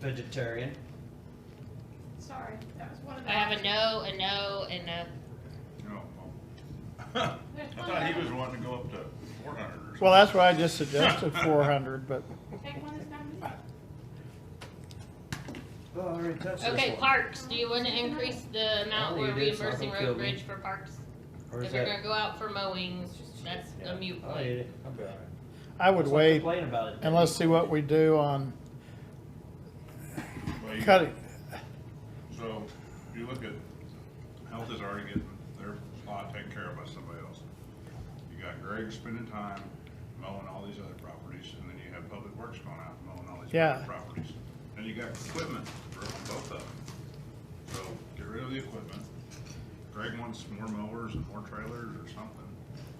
vegetarian. Sorry, that was one of the. I have a options. no, a no, and a, No. Oh, well. I thought he was wanting to go up to four hundred or something. Well, that's why I just suggested four hundred, but Take one that's not in there. Well, Oh, I already touched this okay, one. parks, do you wanna increase the amount Oh, we're you did, so I reimbursing don't feel road me. bridge for parks? Or If is you're that? gonna go out for mowing, that's Yeah. a mute I'll eat point. it. I'll be all right. I would Stop wait Complaining about it. and let's see what we do on Well, you- cutting. So, you look at, health is already getting their lot taken care of by somebody else. You got Greg spending time mowing all these other properties, and then you have Public Works going out and mowing all these Yeah. other properties. And you got equipment for both of them. So, get rid of the equipment. Greg wants more mowers and more trailers or something.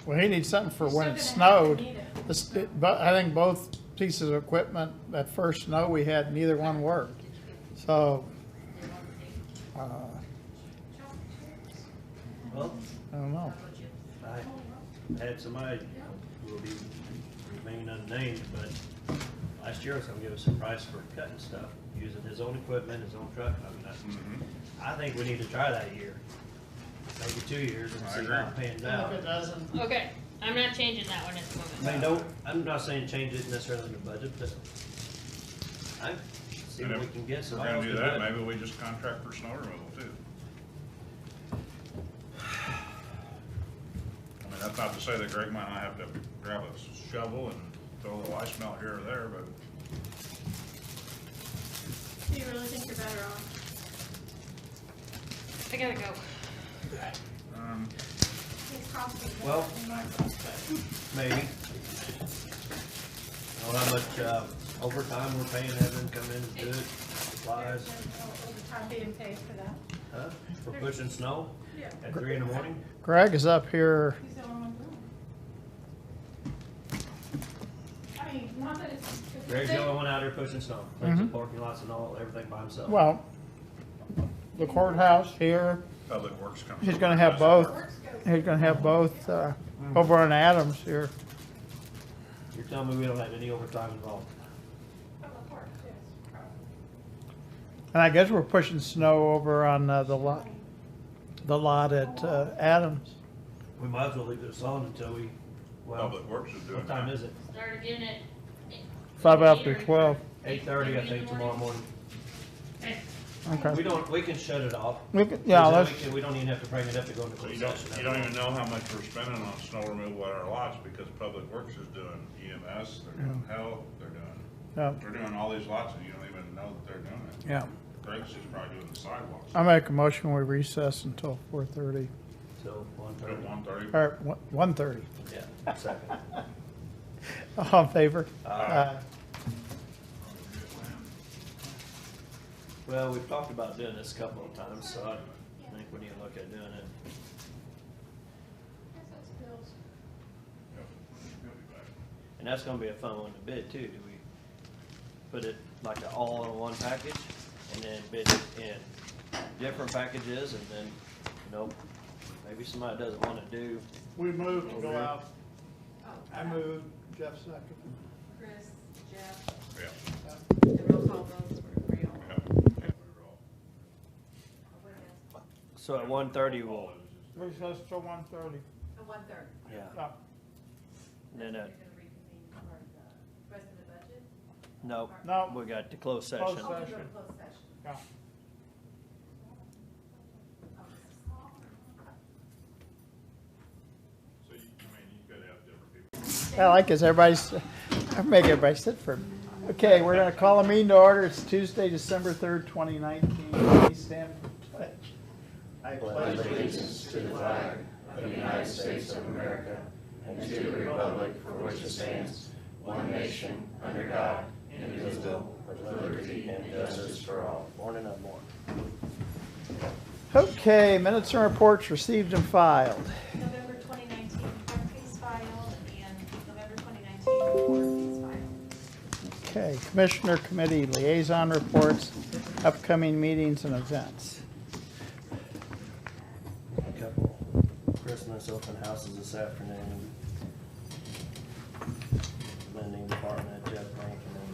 Well, he needs something for You're when it still gonna have to snowed. need it. This- But I think both pieces of equipment, that first snow we had, neither one worked. So, uh, Well, I don't know. I had somebody who will be remain unnamed, but last year I was gonna give us a price for cutting stuff, using his own equipment, his own truck. I mean, that's, I think we need to try that a year, maybe two years and I see agree. how it pans out. doesn't. Okay, I'm not changing that one at the moment. I mean, don't, I'm not saying change it necessarily in the budget, but I see And what if we can get. We're so gonna long do as we that, do it. maybe we just contract for snow removal too. I mean, that's not to say that Greg might not have to grab a shovel and throw a little ice melt here or there, but Do you really think you're better off? I gotta go. um, It's costing. more Well- than mine was, but Maybe. Know how much uh, overtime we're paying, having come in to do it, There's supplies, no overtime being paid for that. huh, for pushing snow Yeah. at three in the morning? Greg is up here. He's the only one doing it. I mean, not that it's. it's a Greg's the thing. only one out here pushing snow, cleans the parking lots and all, everything by himself. Mm-hmm. Well, the courthouse here, public works comes. he's up gonna with have us. both, Works go- he's gonna have both, uh, over on Adams here. You're telling me we don't have any overtime involved? Public works, yes, probably. And I guess we're pushing snow over on uh, the lot, the lot at uh, Adams. We might as well leave this on until we, well, Public Works is doing what time that. is it? Start again at. Five after eight or- 12. Eight thirty, I in the think, tomorrow morning. Okay. We Okay. don't, we can shut it off. We could- Yeah, Because then let's, we can- We don't even have to bring it up to go into So closed You don't, you session. don't even know how much we're spending on snow removal at our lots because public works is doing EMS, they're doing health, they're doing, yeah, they're doing all these lots and you don't even know that they're doing it. yeah. Uh, Greg's is probably doing the sidewalks. I make a motion, we recess until 4:30, So, one At thirty, one thirty, or one- 1:30. yeah, second. All in favor? Aye. Well, we've talked about doing this a couple of times, so I think we need to look at doing it. Guess that's bills. And that's gonna be a fun one to bid too. Do we put it like an all-in-one package and then bid it in different packages and then, you know, maybe somebody doesn't wanna do, We move to go out. I move, Jeff second. Chris, Jeff, yeah, the roll call votes were real. yeah. so at one thirty we'll, Recess till 1:30. The one third. yeah. Yeah. And Then, uh, You're gonna reconvene for the rest of the budget? no, No. we got the closed Closed session. Oh, we go to Session. closed session. Yeah. Oh, this is- So you, I mean, you gotta have different people. I like this, everybody's, I make everybody sit for a minute. Okay, we're gonna call a meeting to order, it's Tuesday, December third, twenty nineteen, please stand for pledge. I pledge Okay, minutes and reports received and filed. November 2019 court case file and November 2019 court case file. Okay, Commissioner Committee Liaison Reports, upcoming meetings and events. a couple Christmas open houses this afternoon. Lending department, Jeff Rankin and